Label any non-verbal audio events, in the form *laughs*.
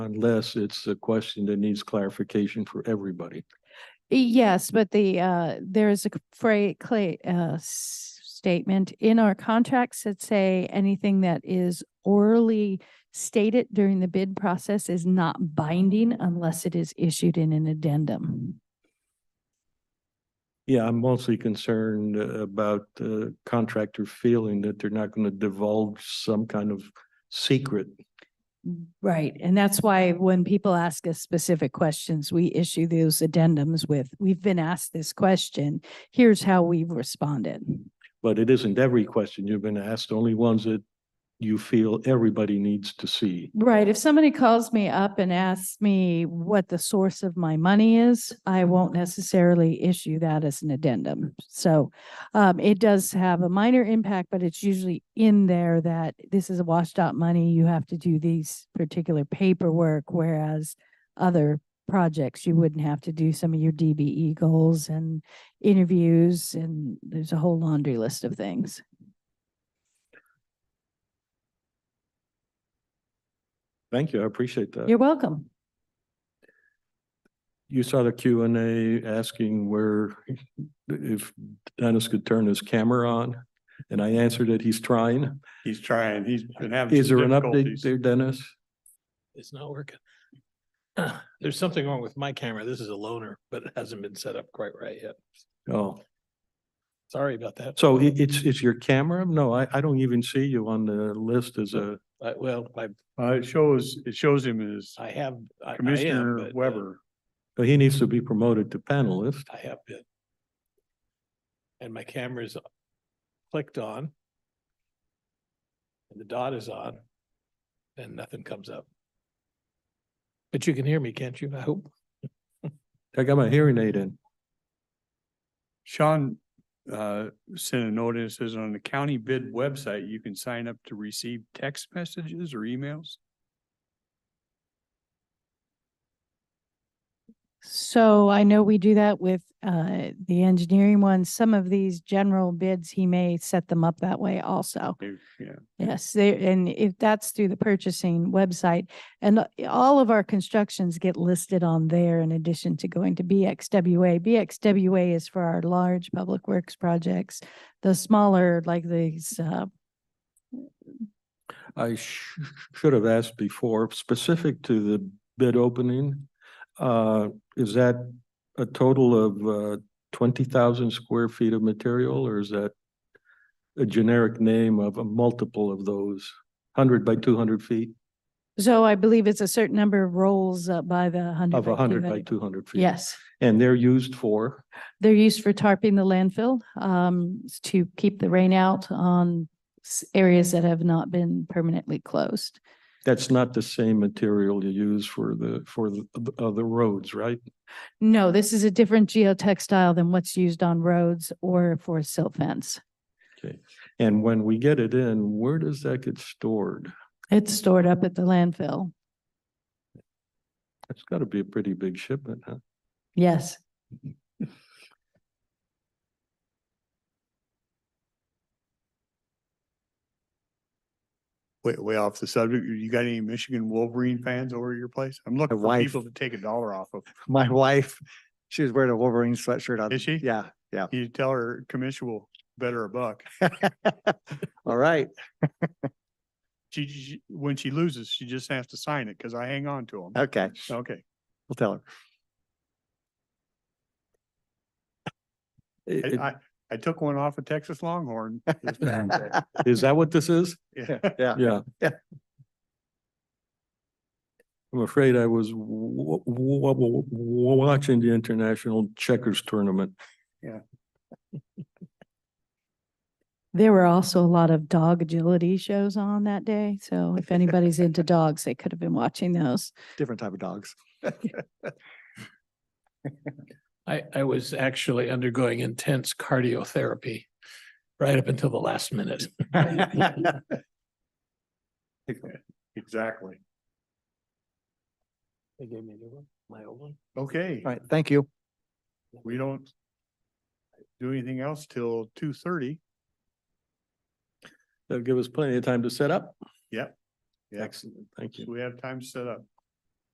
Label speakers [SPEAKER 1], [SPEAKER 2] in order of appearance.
[SPEAKER 1] unless it's a question that needs clarification for everybody.
[SPEAKER 2] Yes, but the, uh, there is a phrase, clay, uh, s- statement in our contracts that say anything that is orally stated during the bid process is not binding unless it is issued in an addendum.
[SPEAKER 1] Yeah, I'm mostly concerned uh, about the contractor feeling that they're not going to divulge some kind of secret.
[SPEAKER 2] Right, and that's why when people ask us specific questions, we issue those addendums with, we've been asked this question, here's how we've responded.
[SPEAKER 1] But it isn't every question you've been asked, only ones that you feel everybody needs to see.
[SPEAKER 2] Right. If somebody calls me up and asks me what the source of my money is, I won't necessarily issue that as an addendum. So um, it does have a minor impact, but it's usually in there that this is a washed out money. You have to do these particular paperwork, whereas other projects, you wouldn't have to do some of your DBE goals and interviews, and there's a whole laundry list of things.
[SPEAKER 1] Thank you, I appreciate that.
[SPEAKER 2] You're welcome.
[SPEAKER 1] You saw the Q and A asking where, if Dennis could turn his camera on, and I answered that he's trying.
[SPEAKER 3] He's trying, he's been having.
[SPEAKER 1] Is
[SPEAKER 3] some
[SPEAKER 1] there an update
[SPEAKER 3] difficulties.
[SPEAKER 1] there, Dennis?
[SPEAKER 4] It's not working. *clears throat* There's something wrong with my camera. This is a loner, but it hasn't been set up quite right yet.
[SPEAKER 1] Oh.
[SPEAKER 4] Sorry about that.
[SPEAKER 1] So i- it's, it's your camera? No, I, I don't even see you on the list as a,
[SPEAKER 4] I- Well, I,
[SPEAKER 3] Uh, it shows, it shows him as
[SPEAKER 4] I have. I- I am, but,
[SPEAKER 3] Commissioner
[SPEAKER 4] uh,
[SPEAKER 3] Weber.
[SPEAKER 1] but he needs to be promoted to panelist.
[SPEAKER 4] I have been. And my camera's clicked on. And the dot is on. And nothing comes up. But you can hear me, can't you? I hope.
[SPEAKER 1] I got my hearing aid in.
[SPEAKER 3] Sean, uh, sent a note and says on the county bid website, you can sign up to receive text messages or emails.
[SPEAKER 2] So I know we do that with uh, the engineering ones. Some of these general bids, he may set them up that way also.
[SPEAKER 3] Yeah, yeah.
[SPEAKER 2] Yes, they, and if that's through the purchasing website, and uh, all of our constructions get listed on there in addition to going to BXWA. BXWA is for our large public works projects. The smaller, like these, uh,
[SPEAKER 1] I sh- should have asked before, specific to the bid opening. Uh, is that a total of, uh, twenty thousand square feet of material or is that a generic name of a multiple of those, hundred by two hundred feet
[SPEAKER 2] so I believe it's a certain number of rolls uh, by the hundred.
[SPEAKER 1] of a hundred by
[SPEAKER 2] 200.
[SPEAKER 1] two hundred feet?
[SPEAKER 2] Yes.
[SPEAKER 1] And they're used for,
[SPEAKER 2] They're used for tarping the landfill, um, s- to keep the rain out on s- areas that have not been permanently closed.
[SPEAKER 1] that's not the same material you use for the, for the, uh, the roads, right?
[SPEAKER 2] No, this is a different geotextile than what's used on roads or for silt fence.
[SPEAKER 1] And when we get it in, where does that get stored?
[SPEAKER 2] It's stored up at the landfill.
[SPEAKER 1] That's got to be a pretty big shipment, huh?
[SPEAKER 2] Yes.
[SPEAKER 3] Way, way off the subject, you got any Michigan Wolverine fans over at your place? I'm looking
[SPEAKER 5] My
[SPEAKER 3] for
[SPEAKER 5] wife.
[SPEAKER 3] people to take a dollar off of.
[SPEAKER 5] my wife, she was wearing a Wolverine sweatshirt on.
[SPEAKER 3] Is she?
[SPEAKER 5] Yeah, *laughs* yeah.
[SPEAKER 3] You tell her commission will bet her a buck.
[SPEAKER 5] All right.
[SPEAKER 3] She- She, when she loses, she just has to sign it because I hang on to them.
[SPEAKER 5] Okay.
[SPEAKER 3] Okay.
[SPEAKER 5] We'll tell her.
[SPEAKER 1] I-
[SPEAKER 3] I,
[SPEAKER 1] I-
[SPEAKER 3] I, I took one off a
[SPEAKER 1] *laughs*
[SPEAKER 3] Texas Longhorn. this past day.
[SPEAKER 5] Yeah.
[SPEAKER 1] Is that what this is?
[SPEAKER 3] Yeah.
[SPEAKER 1] Yeah.
[SPEAKER 5] Yeah.
[SPEAKER 1] I'm afraid I was w- w- w- w- watching the international checkers tournament.
[SPEAKER 2] There were also a lot of dog agility shows on that day. So if anybody's into dogs, they could have been watching those.
[SPEAKER 5] Different type of dogs.
[SPEAKER 4] I, I was actually undergoing intense cardiotherapy right up until the
[SPEAKER 3] *laughs*
[SPEAKER 4] last minute. *laughs*
[SPEAKER 3] Exactly.
[SPEAKER 4] They gave me a new one, my old one.
[SPEAKER 3] Okay,
[SPEAKER 5] All right. Thank you.
[SPEAKER 3] we don't do anything else till two thirty.
[SPEAKER 1] That'll give us plenty of time to set up.
[SPEAKER 3] Yep. Yep.
[SPEAKER 1] Excellent, thank
[SPEAKER 3] So
[SPEAKER 1] you.
[SPEAKER 3] we have time set up.